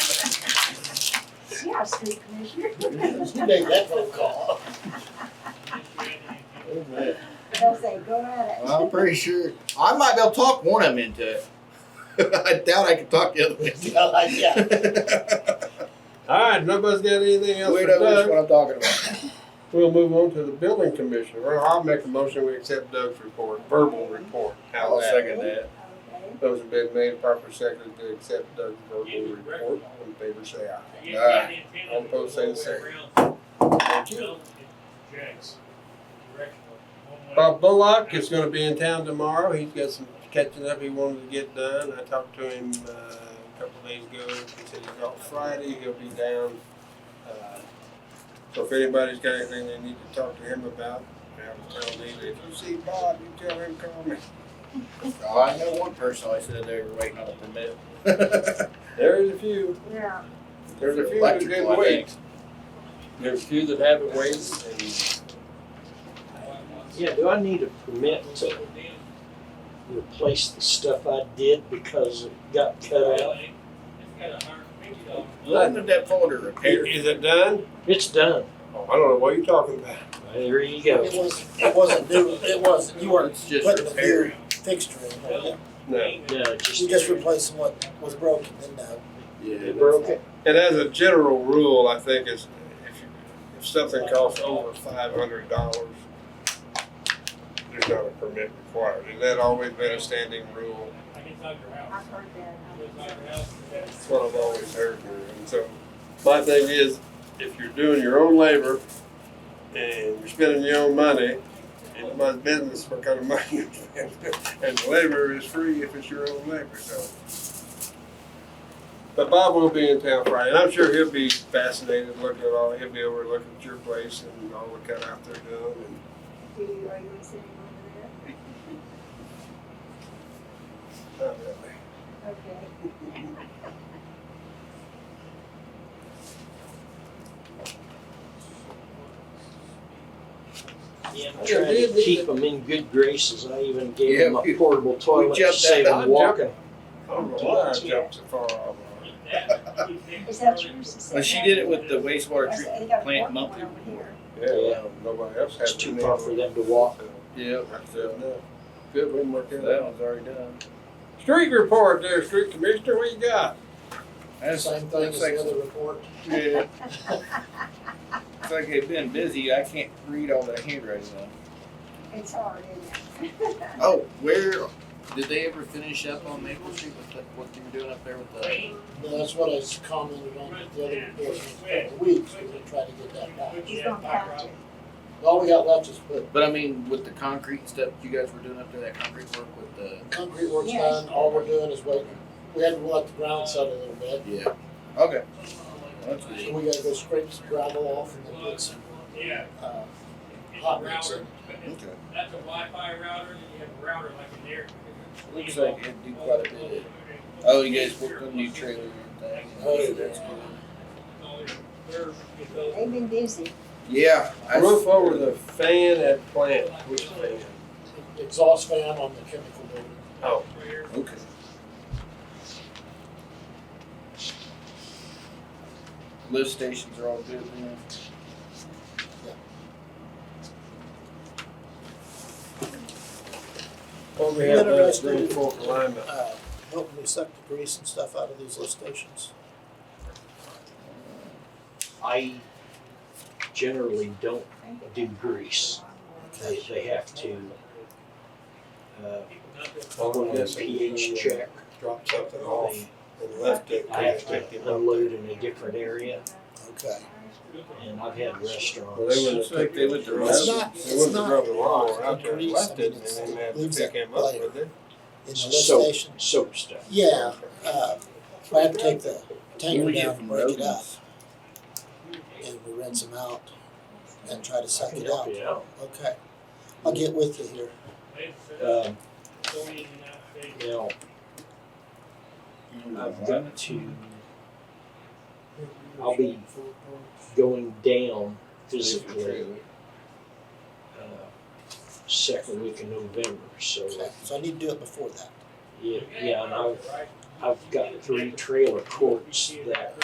Yeah, city commissioner. You make that phone call. Oh, man. They'll say, go at I'm pretty sure, I might be able to talk one of them into it. I doubt I can talk the other one. Yeah, like, yeah. Alright, nobody's got anything else We for know which Doug. one I'm talking about. We'll move on to the building commissioner. Well, I'll make a motion, we accept Doug's report, verbal report. How I'll that? second that. it. Okay. Those have been made proper second to accept Doug's verbal Yeah. report. All in favor, say aye. I'm both saying the same. Thank you. Bob Bullock is gonna be in town tomorrow. He's got some catching up he wanted to get done. I talked to him, uh, a couple days ago. He said he's off Friday. He'll be down. Uh, So if anybody's got anything they need to talk to him about, I was telling him, if you see Bob, you tell him, call me. Oh, I know one person, I said they were waiting on a permit. There is a few. Yeah, There's a few that Electrical, I didn't think. wait. There's a few that haven't waited and Yeah, do I need a permit to replace the stuff I did because it got cut out? When did that folder repair? Is it done? It's done. Oh, I don't know what you're talking about. There you go. It was, it wasn't new, it wasn't, you weren't It's just putting a repair. new fixture in, were you? No. No, it you just replacing what was broken, then no. It Yeah. broke it. And as a general rule, I think is if you, if something costs over five hundred dollars, there's not a permit required. Has that always been a standing rule? I've heard that. That's what I've always heard. And so my thing is, if you're doing your own labor and you're spending your own money, it's my business what kind of money you spend. And the labor is free if it's your own labor, so. But Bob will be in town Friday, and I'm sure he'll be fascinated looking at all, he'll be over looking at your place and all the kind out there doing. And Do you, are you in city over not really. there? Okay. Yeah, I'm trying to keep them in good graces. I even gave Yeah, them a we- portable toilet to jumped save that- them I walking. I don't know why I jumped so far off. Is that yours? Is Well, that- she did it with the wastewater I treatment. said, they got a plant portable monthly. over here. Yeah, nobody else had. It's too far for them to walk. Yep. That's it, no. Good, we can work it That out. one's already done. Street report there, street commissioner, what you got? That's Same thing as looks like- the other report. Yeah. It's like they've been busy. I can't read all that handwriting now. It's hard, isn't it? Oh, where, did they ever finish up on Maple Street with the- what they were doing up there with the? No, that's what I just commented on with the other report, in a couple of weeks, we're gonna try to get that back. He's gonna have to. All we got left is put, But I mean, with the concrete stuff you guys were doing up there, that concrete work with the. concrete work's done, all we're doing is waiting. We had to let the ground settle a little bit, Yeah. Okay. That's so good. we gotta go scrape some gravel off and then put some, uh, hot mix in. Okay. That's a Wi-Fi router, and you have a router like in there. Looks like it'd do quite a bit. Oh, you guys worked on new trailer and thing. Oh, that's good. They've been busy. Yeah. I s- Roof over the fan at plant, which fan? uh, Exhaust fan on the chemical building. Oh, Okay. Lift stations are all good now. what we You have done is interested? Green Fork alignment. uh, helping me suck the grease and stuff out of these lift stations. I generally don't do grease. They they have to, uh, go on a pH check. Dropped something off They- and left it. I have to unload in a different area, Okay. and I've had Well, they restaurants. wouldn't have picked, they wouldn't have rubbed, It's not- they it's wouldn't have not rubbed the lawnmower out there and grease. left it, and It's- then they have to leaves pick that him up layer. with it. In the lift Soap, station, soap stuff. yeah, uh, I have to take the What tanker we get down from and break it up, Rogan's. and we rinse them out and try to I suck can it help out. you out. Okay, I'll get with you here. Um, now, I've got to, I'll be going down physically, uh, second week of November, so, Okay, so I need to do it before that. yeah, yeah, and I've, I've got three trailer courts that